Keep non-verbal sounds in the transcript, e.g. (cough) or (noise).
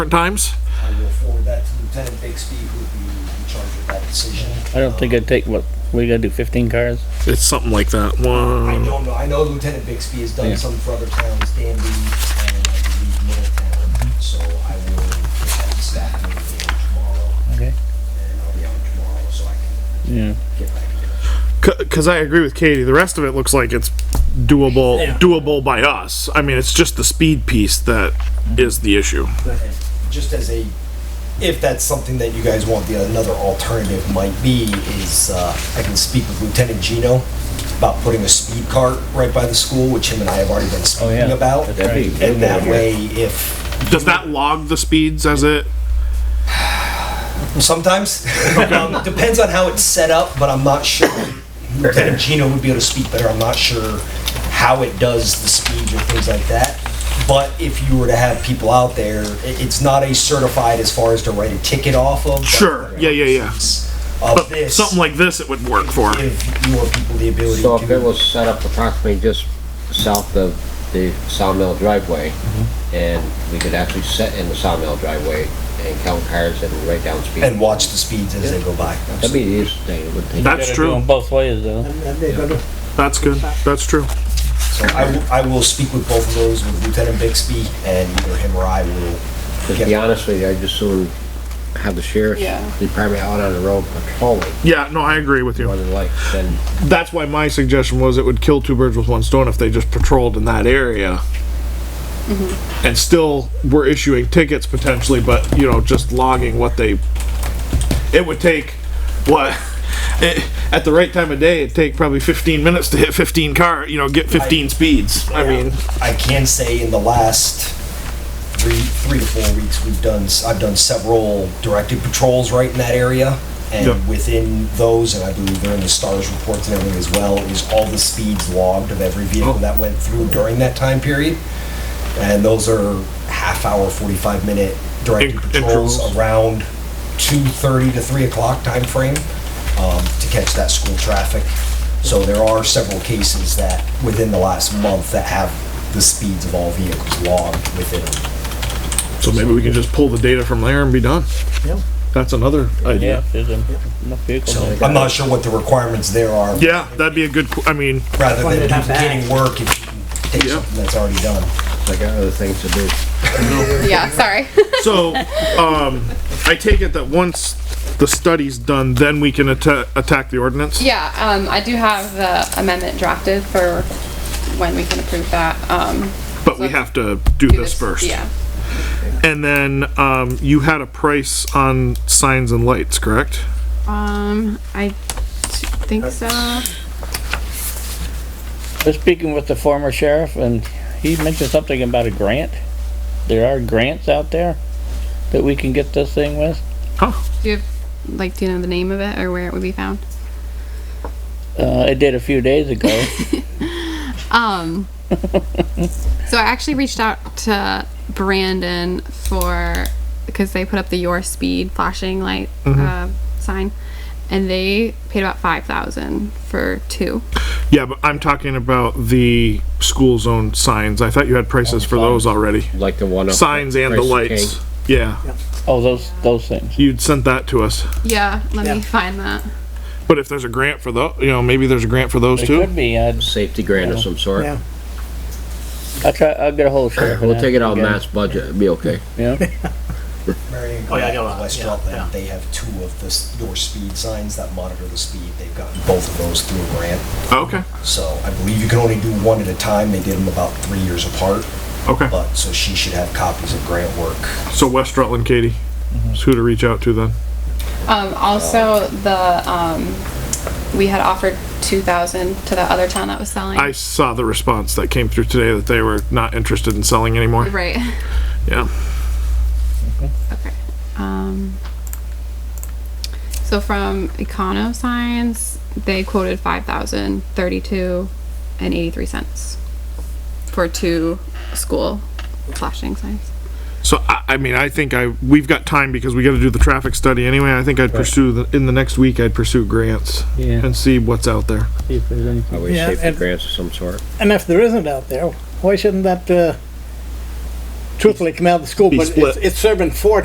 different times? I will forward that to Lieutenant Bixby, who would be in charge of that decision. I don't think I'd take, what, we gotta do fifteen cars? It's something like that. I One. don't know, I know Lieutenant Bixby has done Mm. Yeah. some for other towns, Danby, and I believe Middletown, so I will get that to staff meeting tomorrow, Okay. and I'll be out tomorrow, so I can Yeah. get back to it. Because I agree with Katie. The rest of it looks like it's doable, Yeah. doable by us. I mean, it's just the speed piece that is the issue. And just as a, if that's something that you guys want, the another alternative might be is uh, I can speak with Lieutenant Gino about putting a speed cart right by the school, which him and I have already been speaking Oh, yeah. about. That'd be a good and that idea. way, if Does that log the speeds as it? sometimes (laughs) um, depends on how it's set up, but I'm not sure. Lieutenant Gino would be able to speak better. I'm not sure how it does the speeds or things like that. But if you were to have people out there, i- it's not a certified as far as to write a ticket off of. but Sure. Yeah, yeah, yeah. of But this. something like this, it would work for. give your people the ability So to. if it was set up approximately just south of the sawmill driveway, and we could actually set in the sawmill driveway and count cars and write down speed. and watch the speeds as they go by. That'd be the easiest thing, it would take. That's Gotta do true. 'em both ways though. That's good. That's true. So I will, I will speak with both of those with Lieutenant Bixby, and either him or I will. To be honest with you, I'd just soon have the sheriff's Yeah. department out on the road patrolling, Yeah, no, I agree with more you. than like, then That's why my suggestion was it would kill two birds with one stone if they just patrolled in that area. And still were issuing tickets potentially, but you know, just logging what they, it would take, what, (laughs) it, at the right time of day, it'd take probably fifteen minutes to hit fifteen car, you know, get fifteen speeds. I mean, I can say in the last three, three to four weeks, we've done, s- I've done several directed patrols right in that area. Yep. And within those, and I believe they're in the STARS reports and everything as well, is all the speeds logged of every vehicle that went through during that time period. And those are half hour, forty-five minute directed In- patrols intervals. around two thirty to three o'clock time frame um, to catch that school traffic. So there are several cases that, within the last month, that have the speeds of all vehicles logged within them. so maybe we can just pull the data from there and be done. That's another Yeah, idea. there's en- enough vehicles. Oh So I'm not sure what the requirements there are, Yeah, that'd be a good, qu- I mean, rather than That's why they're not duplicating work if you can take Yeah. something that's already done. I got other things to do. Yeah, sorry. So, um, I take it that once the study's done, then we can atta- attack the ordinance? (laughs) yeah, um, I do have the amendment drafted for when we can approve that. Um, But we have to do this first? Yeah. And then, um, you had a price on signs and lights, correct? Um, I think so. Just speaking with the former sheriff and he mentioned something about a grant. There are grants out there that we can get this thing with. Do you have, like, do you know the name of it or where it would be found? Uh, I did a few days ago. Um, so I actually reached out to Brandon for because they put up the your speed flashing light Mm-hmm. uh, sign, and they paid about five thousand for two. Yeah, but I'm talking about the school zone signs. I thought you had prices for those already. Like the one up. Signs and the Christ lights. King. Yeah, Oh, those, those things. you'd sent that to us. Yeah, let Yeah. me find that. But if there's a grant for tho, you know, maybe there's a grant for those It too? could be, I'd, Safety grant of some sort. Yeah. I'll try, I'll get a whole sheriff. and We'll take it out ask of him mass budget, it'd be okay. again. Yeah, Marion Oh, yeah, I got Grant, that. West Yeah, yeah. Rutland, they have two of the, s- your speed signs that monitor the speed. They've gotten both of those through a grant. Okay, So I believe you can only do one at a time. They did them about three years apart. okay. But, so she should have copies of grant work. So West Rutland, Katie, is who to reach out to then? Um, also, the um, we had offered two thousand to the other town that was selling. I saw the response that came through today that they were not interested in selling anymore. right. (laughs) Yeah. Okay. Um, so from Econo Signs, they quoted five thousand thirty-two and eighty-three cents for two school flashing signs. So I, I mean, I think I, we've got time because we gotta do the traffic study anyway. I think I'd pursue, the in the next week, I'd pursue grants Yeah. and see what's out there. see if there's any- Are we Yeah, safety and- grants of some sort? And if there isn't out there, why shouldn't that, uh, truthfully come out of the school, Be but it's, split. it's serving four